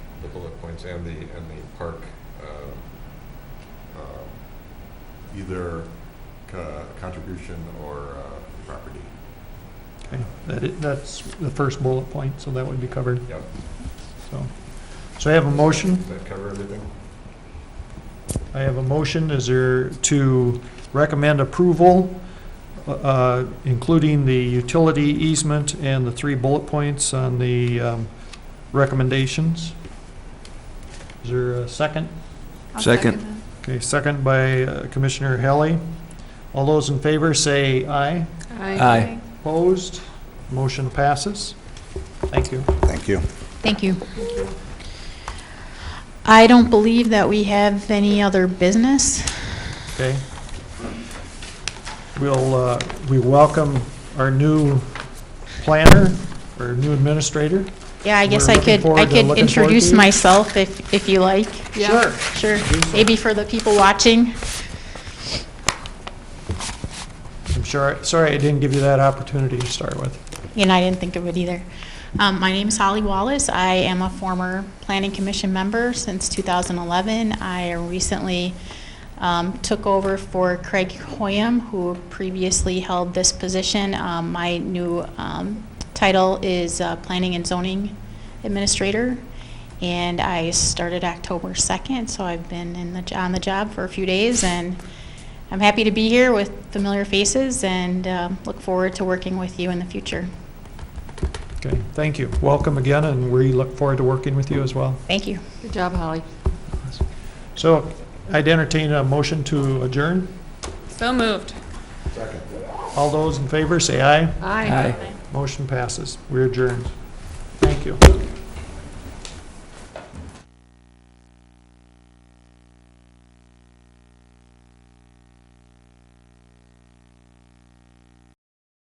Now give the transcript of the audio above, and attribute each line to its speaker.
Speaker 1: points and the, and the park, uh, um, either co- contribution or uh, property.
Speaker 2: Okay, that is, that's the first bullet point, so that would be covered,
Speaker 1: Yep,
Speaker 2: so. So I have a motion,
Speaker 1: does that cover everything?
Speaker 2: I have a motion, is there to recommend approval, uh, including the utility easement and the three bullet points on the, um, recommendations? Is there a second?
Speaker 3: I'll
Speaker 4: Second.
Speaker 3: that.
Speaker 2: Okay, second by uh, Commissioner Helly. All those in favor say aye.
Speaker 4: Aye.
Speaker 2: Opposed? Motion passes. Thank you.
Speaker 4: Thank you.
Speaker 5: Thank you. I don't believe that we have any other business.
Speaker 2: Okay. We'll, uh, we welcome our new planner, our new administrator.
Speaker 5: Yeah, I guess
Speaker 2: We're
Speaker 5: I
Speaker 2: looking
Speaker 5: could, I
Speaker 2: forward to- looking
Speaker 5: could
Speaker 2: forward
Speaker 5: introduce
Speaker 2: to it.
Speaker 5: myself if, if you like.
Speaker 3: Yeah.
Speaker 5: Sure, maybe for the people watching.
Speaker 2: I'm sure, sorry I didn't give you that opportunity to start with.
Speaker 5: and I didn't think of it either. Um, my name is Holly Wallace. I am a former Planning Commission member since 2011. I recently um, took over for Craig Hoyam, who previously held this position. Um, my new um, title is uh, Planning and Zoning Administrator, and I started October 2nd, so I've been in the, on the job for a few days and. I'm happy to be here with familiar faces and um, look forward to working with you in the future.
Speaker 2: Okay, thank you. Welcome again, and we look forward to working with you as well.
Speaker 5: Thank you.
Speaker 3: Good job, Holly.
Speaker 2: So I'd entertain a motion to adjourn.
Speaker 3: So moved.
Speaker 2: All those in favor, say aye.
Speaker 3: Aye.
Speaker 2: Motion passes. We are adjourned. Thank you.